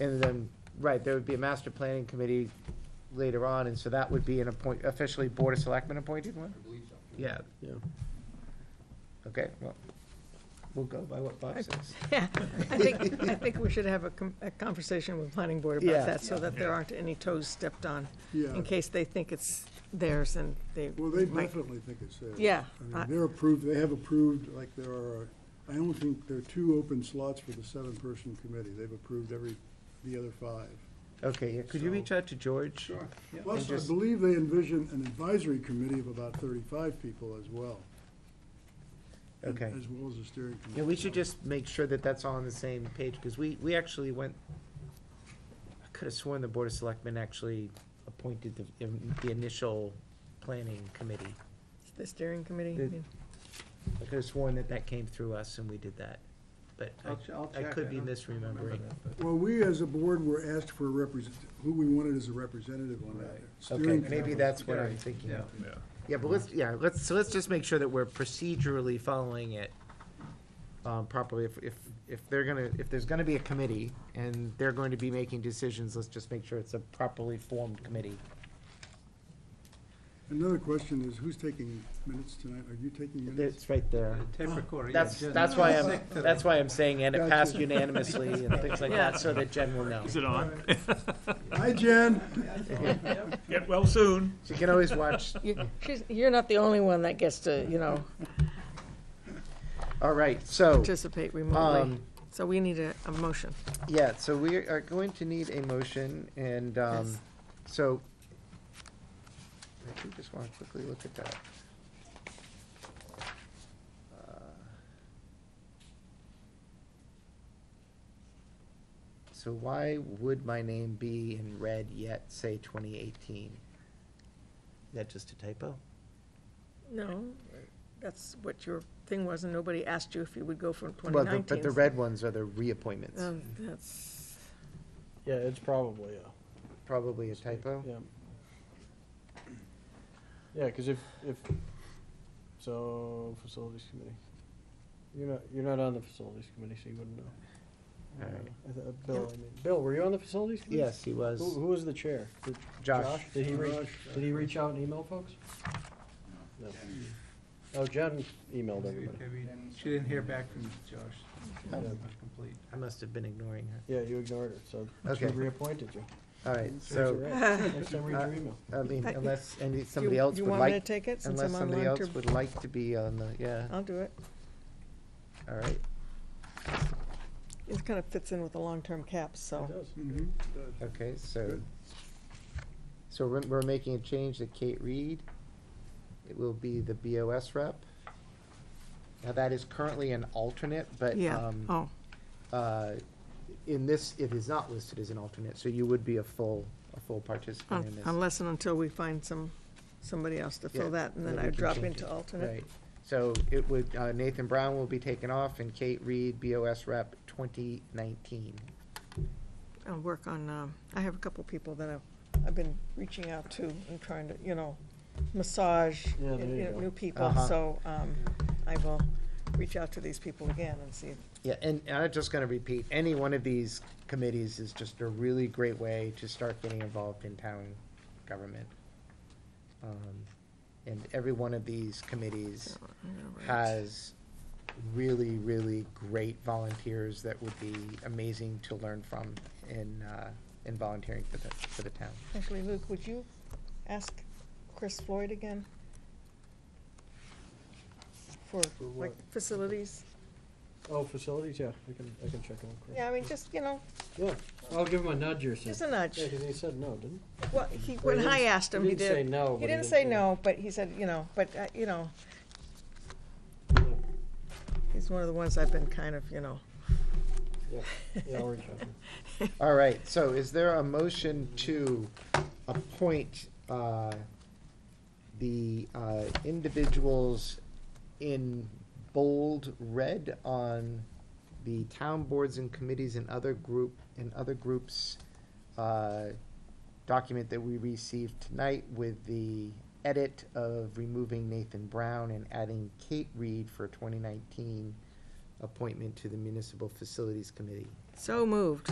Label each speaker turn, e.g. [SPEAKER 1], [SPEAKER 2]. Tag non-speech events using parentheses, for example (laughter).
[SPEAKER 1] And then, right, there would be a master planning committee later on, and so that would be an appoint, officially Board of Selectmen appointed one?
[SPEAKER 2] I believe so.
[SPEAKER 1] Yeah,
[SPEAKER 3] yeah.
[SPEAKER 1] okay, well, we'll go by what Bob says.
[SPEAKER 4] Yeah, I think, I think we should have a, com- a conversation with planning board
[SPEAKER 1] Yeah.
[SPEAKER 4] about that, so that there aren't any toes stepped on,
[SPEAKER 5] Yeah,
[SPEAKER 4] in case they think it's theirs and they
[SPEAKER 5] well, they
[SPEAKER 4] might.
[SPEAKER 5] definitely think it's there.
[SPEAKER 4] Yeah,
[SPEAKER 5] I mean,
[SPEAKER 4] I-
[SPEAKER 5] they're approved, they have approved, like, there are, I don't think, there are two open slots for the seven-person committee. They've approved every, the other five.
[SPEAKER 1] Okay, yeah, could you reach out to George?
[SPEAKER 2] Sure. yeah.
[SPEAKER 5] Plus, I
[SPEAKER 1] just-
[SPEAKER 5] believe they envision an advisory committee of about thirty-five people as well. and-
[SPEAKER 1] Okay.
[SPEAKER 5] As well as a steering committee.
[SPEAKER 1] Yeah, we should just make sure that that's all on the same page, because we, we actually went, I could have sworn the Board of Selectmen actually appointed the, the initial planning committee.
[SPEAKER 4] The steering committee,
[SPEAKER 1] The-
[SPEAKER 4] I mean,
[SPEAKER 1] I could have sworn that that came through us and we did that, but I-
[SPEAKER 2] I'll ch- I'll
[SPEAKER 1] I
[SPEAKER 2] check.
[SPEAKER 1] could be
[SPEAKER 2] don't remember
[SPEAKER 1] misremembering.
[SPEAKER 2] that, but-
[SPEAKER 5] Well, we, as a board, were asked for a represent, who we wanted as a representative on that.
[SPEAKER 2] Right.
[SPEAKER 1] Okay,
[SPEAKER 5] Steering
[SPEAKER 1] maybe
[SPEAKER 5] committee.
[SPEAKER 1] that's what I'm thinking
[SPEAKER 2] Yeah.
[SPEAKER 1] of. Yeah, but let's, yeah, let's, so let's just make sure that we're procedurally following it um, properly. If, if, if they're gonna, if there's gonna be a committee and they're going to be making decisions, let's just make sure it's a properly formed committee.
[SPEAKER 5] Another question is, who's taking minutes tonight? Are you taking minutes?
[SPEAKER 1] It's right there.
[SPEAKER 2] Tape recorder, yeah,
[SPEAKER 1] That's,
[SPEAKER 2] Jen.
[SPEAKER 1] that's why I'm, that's why I'm saying, and it
[SPEAKER 5] Gotcha.
[SPEAKER 1] passed unanimously and things like
[SPEAKER 4] Yeah.
[SPEAKER 1] that, so that Jen will
[SPEAKER 2] (laughs)
[SPEAKER 1] know.
[SPEAKER 3] it on?
[SPEAKER 5] Hi, Jen.
[SPEAKER 1] (laughs)
[SPEAKER 3] Get well soon.
[SPEAKER 1] She can always watch.
[SPEAKER 4] you- she's, you're not the only one that gets to, you know,
[SPEAKER 1] All right, so,
[SPEAKER 4] participate remotely,
[SPEAKER 1] um,
[SPEAKER 4] so we need a, a motion.
[SPEAKER 1] yeah, so we are going to need a motion and, um,
[SPEAKER 4] Yes.
[SPEAKER 1] so. I do just want to quickly look at that. Uh, So why would my name be in red yet say twenty eighteen? Is that just a typo?
[SPEAKER 4] No, that's what your thing was, and nobody asked you if you would go from twenty
[SPEAKER 1] Well, the-
[SPEAKER 4] nineteen.
[SPEAKER 1] but
[SPEAKER 4] Um,
[SPEAKER 1] the red ones are the reappointments.
[SPEAKER 4] That's,
[SPEAKER 3] Yeah, it's probably a.
[SPEAKER 1] Probably a typo.
[SPEAKER 3] Yeah. Yeah, because if, if, so, facilities committee. You're not, you're not on the facilities committee, so you wouldn't know.
[SPEAKER 1] All right.
[SPEAKER 3] I th- uh, Bill, I mean, Bill, were you on the facilities committee?
[SPEAKER 1] Yes, he was.
[SPEAKER 3] Who, who was the chair? Did-
[SPEAKER 1] Josh.
[SPEAKER 3] Did he reach,
[SPEAKER 5] Josh.
[SPEAKER 3] did he reach out and email folks? No. Oh, Jen emailed everybody.
[SPEAKER 2] I mean, She didn't hear back from Josh. It's not complete.
[SPEAKER 1] I must have been ignoring her.
[SPEAKER 3] Yeah, you ignored her, so she
[SPEAKER 1] Okay.
[SPEAKER 3] reappointed you.
[SPEAKER 1] All right,
[SPEAKER 3] Serves you
[SPEAKER 1] so,
[SPEAKER 3] right. Next time, read your email.
[SPEAKER 1] I mean,
[SPEAKER 4] Uh,
[SPEAKER 1] unless, and
[SPEAKER 4] do you,
[SPEAKER 1] somebody else
[SPEAKER 4] you
[SPEAKER 1] would
[SPEAKER 4] want me to
[SPEAKER 1] like,
[SPEAKER 4] take it, since
[SPEAKER 1] unless
[SPEAKER 4] I'm on Oh.
[SPEAKER 1] somebody
[SPEAKER 4] long
[SPEAKER 1] else
[SPEAKER 4] term?
[SPEAKER 1] would like to be on the, yeah,
[SPEAKER 4] I'll do it,
[SPEAKER 1] all right,
[SPEAKER 4] it kind of fits in with the long-term cap, so.
[SPEAKER 3] It does.
[SPEAKER 5] Mhm.
[SPEAKER 1] okay, so.
[SPEAKER 5] Good.
[SPEAKER 1] So we're, we're making a change to Kate Reed. It will be the BOS rep. Now, that is currently an alternate, but,
[SPEAKER 4] Yeah,
[SPEAKER 1] um,
[SPEAKER 4] oh,
[SPEAKER 1] uh, in this, it is not listed as an alternate, so you would be a full, a full participant in
[SPEAKER 4] un-
[SPEAKER 1] this.
[SPEAKER 4] unless and oh, until we find some, somebody else to
[SPEAKER 1] Yeah,
[SPEAKER 4] fill that, and
[SPEAKER 1] then
[SPEAKER 4] then
[SPEAKER 1] we
[SPEAKER 4] I
[SPEAKER 1] can
[SPEAKER 4] drop
[SPEAKER 1] change
[SPEAKER 4] into
[SPEAKER 1] it.
[SPEAKER 4] alternate.
[SPEAKER 1] Right, so it would, uh, Nathan Brown will be taken off and Kate Reed, BOS rep, twenty nineteen.
[SPEAKER 4] I'll work on, um, I have a couple people that I've, I've been reaching out to and trying to, you know, massage
[SPEAKER 3] Yeah, there
[SPEAKER 4] you
[SPEAKER 3] you
[SPEAKER 4] know,
[SPEAKER 3] go.
[SPEAKER 4] new people,
[SPEAKER 1] Uh-huh.
[SPEAKER 4] so, um, I will reach out to these people again and see.
[SPEAKER 1] Yeah, and, and I'm just gonna repeat, any one of these committees is just a really great way to start getting involved in town government. Um, And every one of these committees
[SPEAKER 4] I'm gonna write.
[SPEAKER 1] has really, really great volunteers that would be amazing to learn from in, uh, in volunteering for the, for the town.
[SPEAKER 4] Actually, Luke, would you ask Chris Floyd again? For,
[SPEAKER 3] For
[SPEAKER 4] like,
[SPEAKER 3] what?
[SPEAKER 4] facilities?
[SPEAKER 3] Oh, facilities, yeah, I can, I can check on Chris.
[SPEAKER 4] Yeah, I mean, just, you know,
[SPEAKER 3] Yeah, I'll give him a nudge or something.
[SPEAKER 4] just a nudge.
[SPEAKER 3] Yeah, because he said no, didn't
[SPEAKER 4] Well, he,
[SPEAKER 3] he?
[SPEAKER 4] when I asked him, he
[SPEAKER 3] didn't say
[SPEAKER 4] did.
[SPEAKER 3] no. but
[SPEAKER 4] He didn't say no, but he said, you know, but, uh, you know,
[SPEAKER 3] Yeah,
[SPEAKER 4] he's one of the ones I've been kind of, you know.
[SPEAKER 3] yeah, yeah, I'll reach out.
[SPEAKER 1] All right, so is there a motion to appoint uh, the uh, individuals in bold red on the town boards and committees and other group, and other groups uh, document that we received tonight with the edit of removing Nathan Brown and adding Kate Reed for 2019 appointment to the Municipal Facilities Committee?
[SPEAKER 4] So moved.